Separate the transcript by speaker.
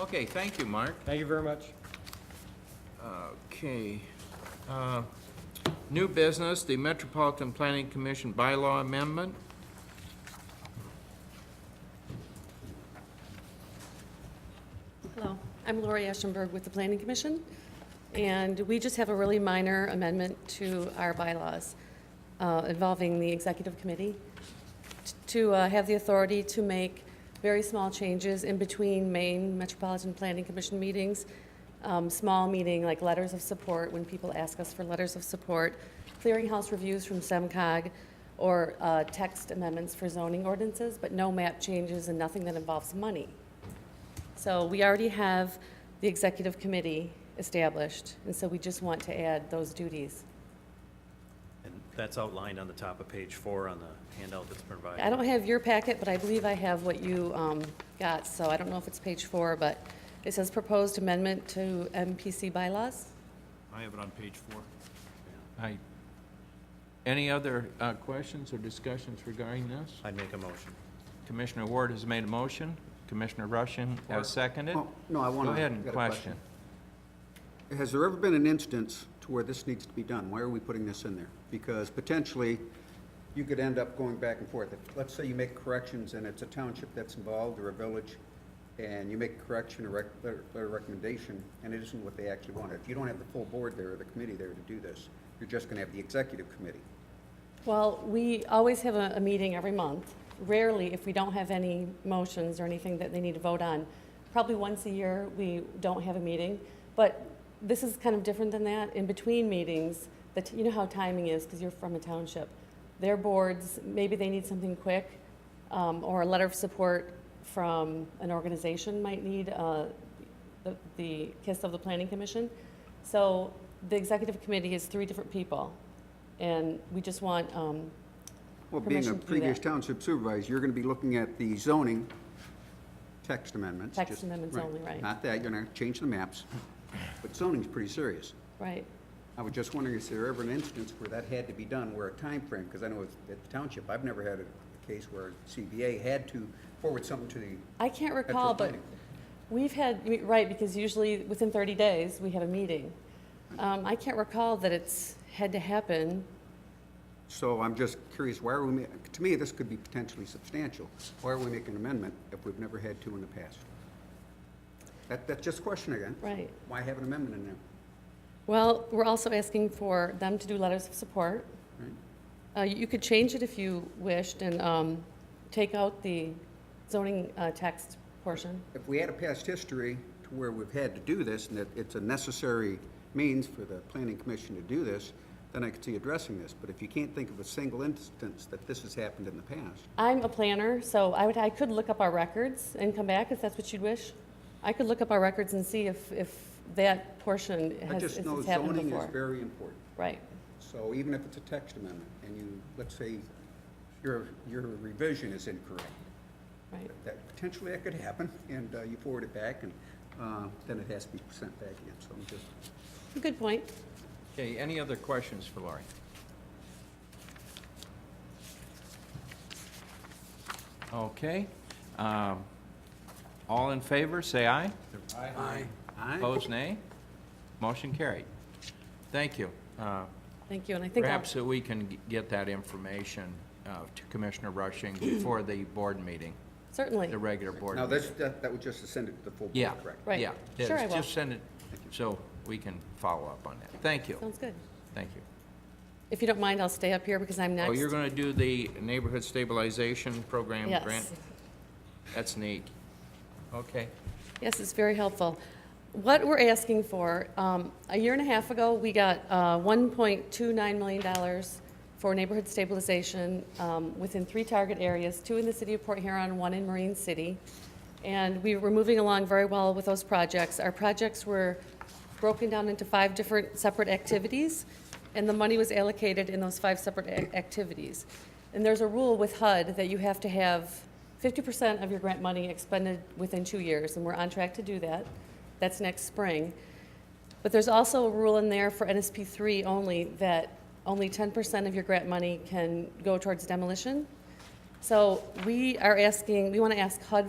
Speaker 1: Okay, thank you, Mark.
Speaker 2: Thank you very much.
Speaker 1: Okay. uh, New business, the Metropolitan Planning Commission bylaw amendment.
Speaker 3: Hello, I'm Lori Ashenberg with the Planning Commission, and we just have a really minor amendment to our bylaws uh, involving the Executive Committee t- to uh, have the authority to make very small changes in between main Metropolitan Planning Commission meetings, um, small meeting like letters of support, when people ask us for letters of support, clearinghouse reviews from SEMCOG, or uh, text amendments for zoning ordinances, but no map changes and nothing that involves money. So we already have the executive committee established, and so we just want to add those duties.
Speaker 4: And that's outlined on the top of page four on the handout that's provided.
Speaker 3: I don't have your packet, but I believe I have what you um, got, so I don't know if it's page four, but it says proposed amendment to MPC bylaws.
Speaker 5: I have it on page four.
Speaker 1: I, any other uh, questions or discussions regarding this?
Speaker 4: I'd make a motion.
Speaker 1: Commissioner Ward has made a motion. Commissioner Rushing has seconded.
Speaker 6: Oh, No, I want
Speaker 1: Go
Speaker 6: to.
Speaker 1: ahead and question.
Speaker 6: Has there ever been an instance to where this needs to be done? Why are we putting this in there? Because potentially, you could end up going back and forth. If- Let's say you make corrections and it's a township that's involved or a village, and you make a correction or rec- letter letter of recommendation, and it isn't what they actually wanted. If you don't have the full board there or the committee there to do this, you're just going to have the executive committee.
Speaker 3: Well, we always have a, a meeting every month. Rarely, if we don't have any motions or anything that they need to vote on, probably once a year, we don't have a meeting. But this is kind of different than that. In between meetings, that, you know how timing is, because you're from a township. Their boards, maybe they need something quick, um, or a letter of support from an organization might need, uh, the, the kiss of the planning commission. So the executive committee is three different people, and we just want, um,
Speaker 6: Well, being
Speaker 3: Permission
Speaker 6: a
Speaker 3: to do
Speaker 6: previous
Speaker 3: that.
Speaker 6: township supervisor, you're going to be looking at the zoning text amendments.
Speaker 3: Text
Speaker 6: just-
Speaker 3: amendments only, right.
Speaker 6: Not that, you're going to change the maps, but zoning's pretty serious.
Speaker 3: right,
Speaker 6: I was just wondering, is there ever an instance where that had to be done, where a time frame? because I know it's at the township, I've never had a a case where CBA had to forward something to the,
Speaker 3: I can't recall, but
Speaker 6: planning.
Speaker 3: we've had, we- right, because usually within 30 days, we have a meeting. Um, I can't recall that it's had to happen.
Speaker 6: so I'm just curious, why are we, ma- to me, this could be potentially substantial. Why are we making an amendment if we've never had to in the past? That, that's just a question again.
Speaker 3: Right.
Speaker 6: Why have an amendment in there?
Speaker 3: Well, we're also asking for them to do letters of support. Uh, you could change it if you wished and, um, take out the zoning, uh, text portion.
Speaker 6: If we had a past history to where we've had to do this, and that it's a necessary means for the planning commission to do this, then I could see addressing this, but if you can't think of a single instance that this has happened in the past,
Speaker 3: I'm a planner, so I would, I could look up our records and come back if that's what you'd wish. I could look up our records and see if, if that portion
Speaker 6: I
Speaker 3: has, if
Speaker 6: just know
Speaker 3: it's happened
Speaker 6: zoning is
Speaker 3: before.
Speaker 6: very important.
Speaker 3: Right,
Speaker 6: So even if it's a text amendment, and you, let's say, your, your revision is incorrect,
Speaker 3: right.
Speaker 6: that potentially that could happen, and uh, you forward it back, and uh, then it has to be sent back again, so I'm just,
Speaker 3: Good point.
Speaker 1: Okay, any other questions for Lori? Okay. um, All in favor, say aye.
Speaker 6: aye,
Speaker 1: Opposed, nay. Motion carried. Thank you. Uh,
Speaker 3: Thank you, and I think I'll,
Speaker 1: Perhaps that we can g- get that information uh, to Commissioner Rushing before the board meeting,
Speaker 3: certainly,
Speaker 1: the regular board
Speaker 6: now,
Speaker 1: meeting.
Speaker 6: this, that that would just send it to the full
Speaker 1: Yeah,
Speaker 6: board, correct?
Speaker 3: Right.
Speaker 1: yeah. it
Speaker 3: Sure,
Speaker 1: is.
Speaker 3: I will.
Speaker 1: Just send it, so we can follow up on that. Thank you,
Speaker 3: sounds good.
Speaker 1: thank you.
Speaker 3: If you don't mind, I'll stay up here because I'm next.
Speaker 1: Oh, you're gonna do the neighborhood stabilization program
Speaker 3: Yes.
Speaker 1: grant? That's neat. Okay.
Speaker 3: Yes, it's very helpful. What we're asking for, um, a year and a half ago, we got uh, $1.29 million for neighborhood stabilization um, within three target areas, two in the city of Port Huron, one in Marine City. And we were moving along very well with those projects. Our projects were broken down into five different separate activities, and the money was allocated in those five separate ac- activities. And there's a rule with HUD that you have to have 50% of your grant money expended within two years, and we're on track to do that. That's next spring. But there's also a rule in there for NSP 3 only that only 10% of your grant money can go towards demolition. So we are asking, we want to ask HUD